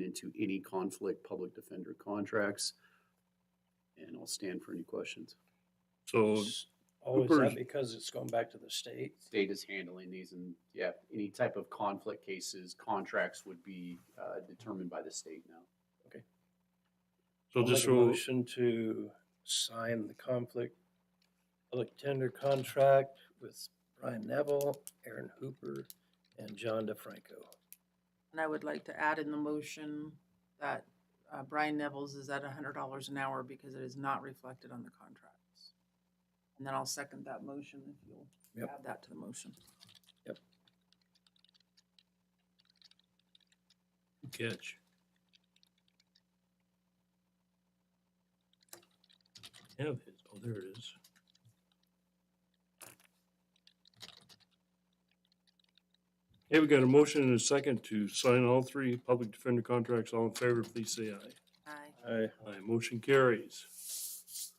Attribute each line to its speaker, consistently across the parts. Speaker 1: into any conflict public defender contracts. And I'll stand for any questions.
Speaker 2: So
Speaker 3: Oh, is that
Speaker 2: Cooper's-
Speaker 3: because it's going back to the state?
Speaker 1: State is handling these and, yeah, any type of conflict cases, contracts would be, uh, determined by the state now.
Speaker 2: So
Speaker 3: I'll
Speaker 2: just
Speaker 3: make a
Speaker 2: so,
Speaker 3: Motion to sign the conflict public tender contract with Brian Neville, Aaron Hooper, and John DeFranco.
Speaker 4: And I would like to add in the motion that uh, Brian Neville's is at hundred dollars an hour because it is not reflected on the contracts. And then I'll second that motion if you'll
Speaker 3: Yep.
Speaker 4: add that to the motion.
Speaker 2: catch. Have his, oh, there it is. Hey, we got a motion and a second to sign all three public defender contracts. All in favor, please say aye.
Speaker 4: Aye.
Speaker 3: Aye.
Speaker 2: Aye, motion carries.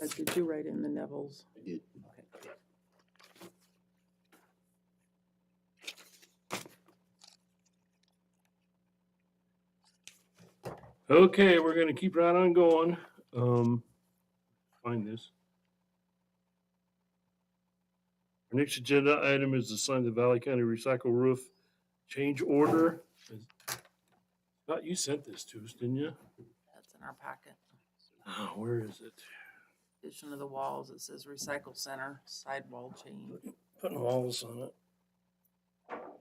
Speaker 4: Guys, Did you write in the Neville's?
Speaker 1: I did.
Speaker 2: Okay, we're gonna keep right on going. Um, find this. Our next agenda item is to sign the Valley County Recycle Roof Change Order. Scott, you sent this to us, didn't you?
Speaker 4: That's in our packet.
Speaker 2: Ah, where is it?
Speaker 4: Addition of the walls, it says recycle center, sidewall change.
Speaker 3: Putting walls on it.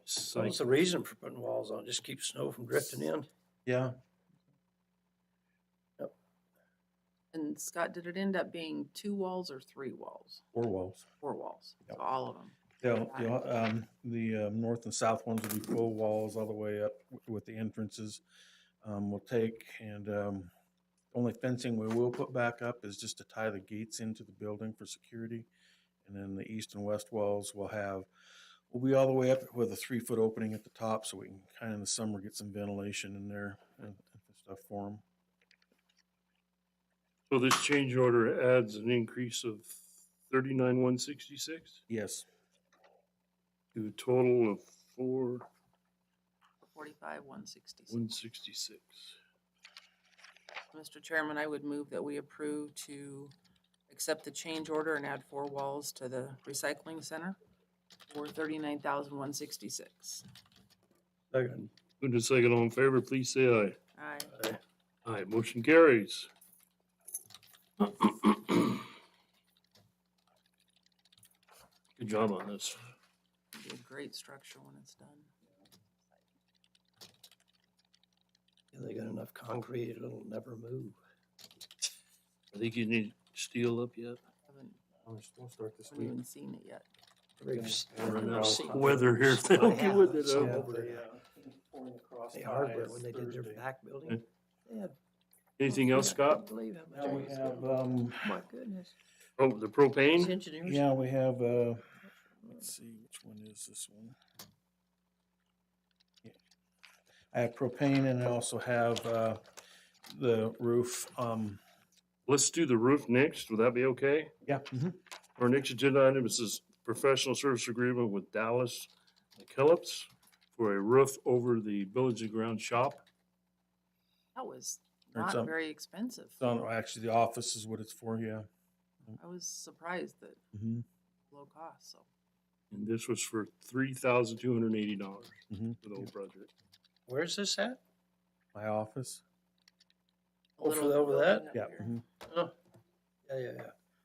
Speaker 3: So What's the reason for putting walls on? Just keep snow from drifting in?
Speaker 5: Yeah,
Speaker 4: And Scott, did it end up being two walls or three walls?
Speaker 5: or walls.
Speaker 4: Four walls, so
Speaker 5: Yep.
Speaker 4: all of them.
Speaker 5: They'll, they'll, um, the, um, north and south ones will be full walls all the way up w- with the entrances. Um, we'll take and, um, only fencing we will put back up is just to tie the gates into the building for security. And then the east and west walls will have, will be all the way up with a three foot opening at the top so we can kind of in the summer get some ventilation in there and and stuff for them.
Speaker 2: So this change order adds an increase of thirty-nine, one sixty-six
Speaker 5: Yes,
Speaker 2: to a total of four,
Speaker 4: Forty-five, one sixty-six.
Speaker 2: one sixty-six.
Speaker 4: Mr. Chairman, I would move that we approve to accept the change order and add four walls to the recycling center for thirty-nine thousand one sixty-six.
Speaker 3: Second.
Speaker 2: Move to second, all in favor, please say aye.
Speaker 4: Aye.
Speaker 3: Aye.
Speaker 2: Aye, motion carries. Good job on this.
Speaker 4: It'll Be a great structure when it's done.
Speaker 3: If They got enough concrete, it'll never move.
Speaker 2: I think you need steel up yet.
Speaker 4: Haven't,
Speaker 5: we'll start this
Speaker 4: haven't even seen it yet.
Speaker 3: There's
Speaker 5: Or
Speaker 3: enough
Speaker 5: no.
Speaker 3: seat.
Speaker 2: Weather here, if they don't get with it.
Speaker 3: Yeah.
Speaker 2: uh,
Speaker 3: They hardware, when they did their back building. they had-
Speaker 2: Anything else,
Speaker 3: I
Speaker 2: Scott?
Speaker 3: believe how much
Speaker 5: Now we
Speaker 3: I
Speaker 5: have,
Speaker 3: spent.
Speaker 5: um,
Speaker 3: My goodness.
Speaker 2: Oh, the propane?
Speaker 3: engineers.
Speaker 5: yeah, we have, uh, Let's see, which one is this one? Yeah. I have propane and I also have, uh, the roof, um,
Speaker 2: Let's do the roof next. Would that be okay?
Speaker 5: yeah. mhm.
Speaker 2: Our next agenda item is this professional service agreement with Dallas McKellips for a roof over the Village and Ground shop.
Speaker 4: That was
Speaker 5: Or
Speaker 4: not
Speaker 5: some-
Speaker 4: very expensive.
Speaker 5: It's on, actually, the office is what it's for, yeah.
Speaker 4: I was surprised that
Speaker 5: Mhm.
Speaker 4: low cost, so.
Speaker 2: And this was for three thousand two hundred and eighty dollars
Speaker 5: Mhm.
Speaker 2: for the whole project.
Speaker 3: Where's this at?
Speaker 5: My office,
Speaker 4: a
Speaker 3: Oh, for
Speaker 4: little
Speaker 3: over that?
Speaker 4: building up
Speaker 5: yeah.
Speaker 4: here.
Speaker 5: mhm.
Speaker 3: Oh, yeah, yeah, yeah.